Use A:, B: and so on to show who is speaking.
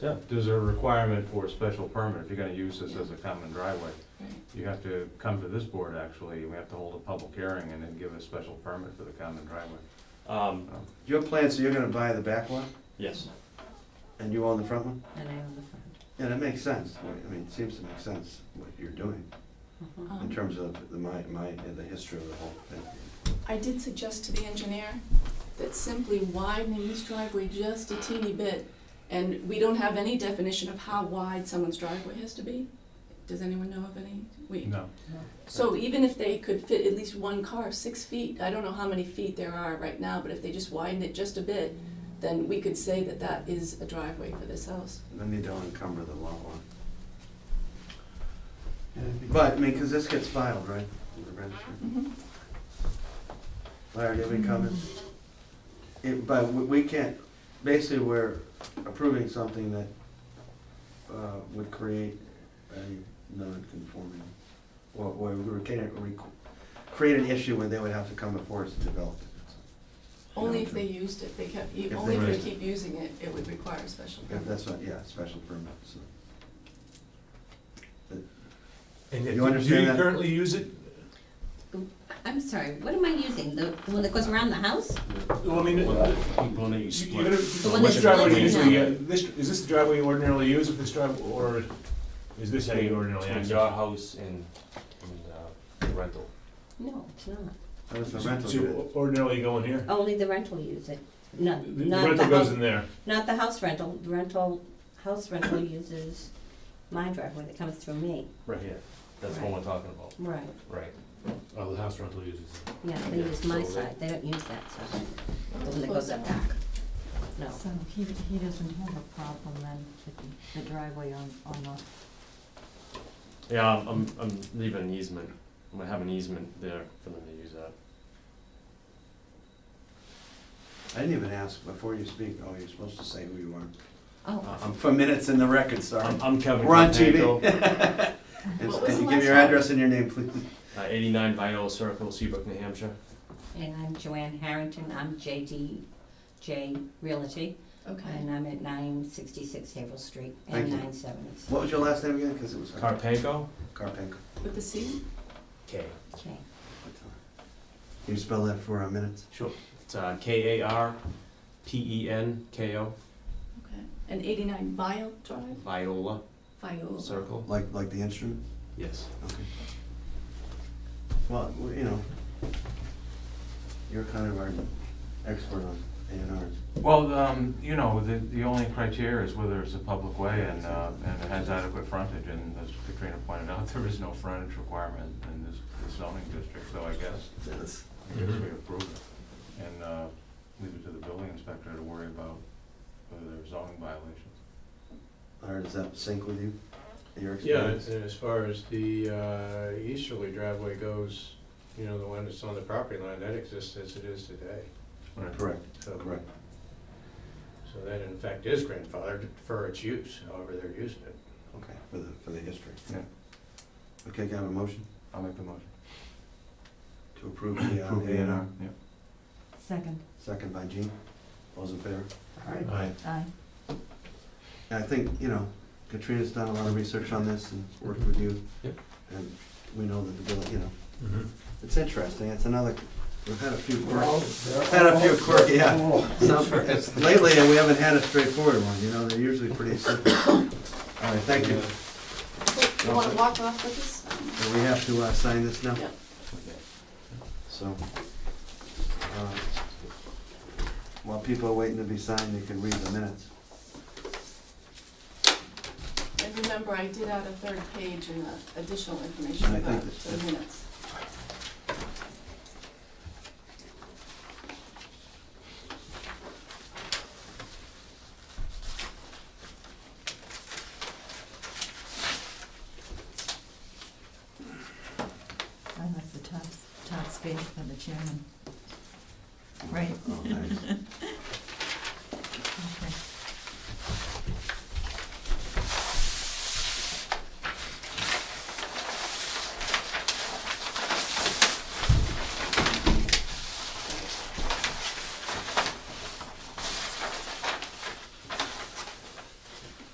A: Yeah, there's a requirement for a special permit, if you're gonna use this as a common driveway. You have to come to this board, actually, we have to hold a public hearing and then give a special permit for the common driveway.
B: Um,
C: Your plan, so you're gonna buy the back lot
B: yes,
C: and you own the front one?
D: And I own the front.
C: Yeah, that makes sense. I mean, it seems to make sense what you're doing in
E: Um,
C: terms of the, my, my, the history of the whole thing.
E: I did suggest to the engineer that simply widening this driveway just a teeny bit, and we don't have any definition of how wide someone's driveway has to be. Does anyone know of any? We,
A: No,
E: so even if they could fit at least one car, six feet, I don't know how many feet there are right now, but if they just widen it just a bit, then we could say that that is a driveway for this house.
C: And Then they don't encumber the lot line. But, I mean, cause this gets filed, right? with the registry?
D: Mm-hmm.
E: Mhm.
C: Larry, do you have any comments? It, but we, we can't, basically, we're approving something that, uh, would create a non-conforming, or, or we would create, a requ- create an issue where they would have to come before us to develop it.
E: Only if they used it, they kept,
C: If they
E: only if
C: used
E: they keep using it, it would require a special
C: If
E: permit.
C: that's what, yeah, special permit, so.
F: And
C: You
F: do-
C: understand
F: Do you
C: that?
F: currently use it?
D: I'm sorry, what am I using? The, the one that goes around the house?
F: Well, I mean, you- you're gonna-
D: one
F: which
D: that's
F: driveway
D: split
F: usually,
D: now.
F: uh, this, is this the driveway you ordinarily use, if this driveway, or is this how you ordinarily
B: between
F: access?
B: your house and, and, uh, the rental.
D: No, it's not.
C: That was the
F: So-
C: rental
F: So
C: unit.
F: you ordinarily go in here?
D: Only the rental use it. No,
F: The the
D: not the
F: rental goes
D: house,
F: in there.
D: not the house rental. The rental, house rental uses my driveway that comes through me.
B: Right here. That's what we're talking about,
D: Right.
B: right.
G: Oh, the house rental uses it.
D: Yeah, they
B: Yeah,
D: use my
B: so-
D: side. They don't use that side. The one that goes up back. No.
H: So he, he doesn't have a problem then with the driveway on, on the
B: Yeah, I'm- I'm, I'm leaving an easement, I'm gonna have an easement there for them to use that.
C: I didn't even ask before you speak, oh, you're supposed to say who you are.
D: Oh,
C: I'm for minutes in the record, sorry.
B: Uh, I'm, I'm Kevin.
C: We're on
B: Contango,
C: And
E: What was
C: and
E: the
C: give
E: last
C: your
E: one?
C: address and your name, please.
B: Uh, eighty-nine Viola Circle, Seabrook, New Hampshire.
D: and I'm Joanne Harrington. I'm JDJ Realty.
E: Okay.
D: And I'm at nine sixty-six Havel Street
C: Thank
D: and
C: you.
D: nine seventy.
C: What was your last name again? Because it was hard.
B: Carpenco?
C: Carpenco.
E: With the C?
B: K.
D: Okay.
C: Can you spell that for our minutes?
B: Sure. It's, uh, K A R P E N K O,
E: Okay, and eighty-nine Vile Drive,
B: Viola
E: Viola.
B: Circle,
C: Like, like the instrument?
B: yes.
C: Okay. Well, we- you know, you're kind of our expert on A and R's.
A: well, um, you know, the, the only criteria is whether it's a public way and, uh, and it has adequate frontage, and as Katrina pointed out, there is no frontage requirement in this this zoning district, so I guess,
C: Yes.
A: I guess we approve it. And, uh, leave it to the building inspector to worry about whether there's zoning violations.
C: Or does that sync with you? Your
G: Yeah,
C: experience?
G: and as far as the uh, easterly driveway goes, you know, the one that's on the property line, that exists as it is today.
A: Right.
C: Correct,
G: So-
C: correct.
G: So that in fact is grandfathered for its use, however they're using it.
C: Okay, for the, for the history.
A: Yeah.
C: Okay, can I have a motion
A: I'll make the motion.
C: to approve the uh, A and R?
A: Yeah.
H: second,
C: Second by Gene. All's in favor?
H: Aye.
G: Aye.
H: aye.
C: And I think, you know, Katrina's done a lot of research on this and worked with you.
B: Yep.
C: And we know that the, bill- you know, it's interesting, it's another, we've had a few quirky, had
G: Had
C: a few quirky, yeah. Some- it's- Lately, uh, we haven't had a straightforward one, you know, they're usually pretty simple. All right, thank you.
E: Wait, You wanna walk off with this?
C: Do we have to uh, sign this now?
E: Yeah.
C: So, uh, while people are waiting to be signed, they can read the minutes.
E: And remember, I did add a third page and uh, additional
C: And
E: information
C: I
E: about
C: think
E: the
C: that-
E: minutes.
H: I like the top, top space for the chairman. Right.
C: Oh, thanks.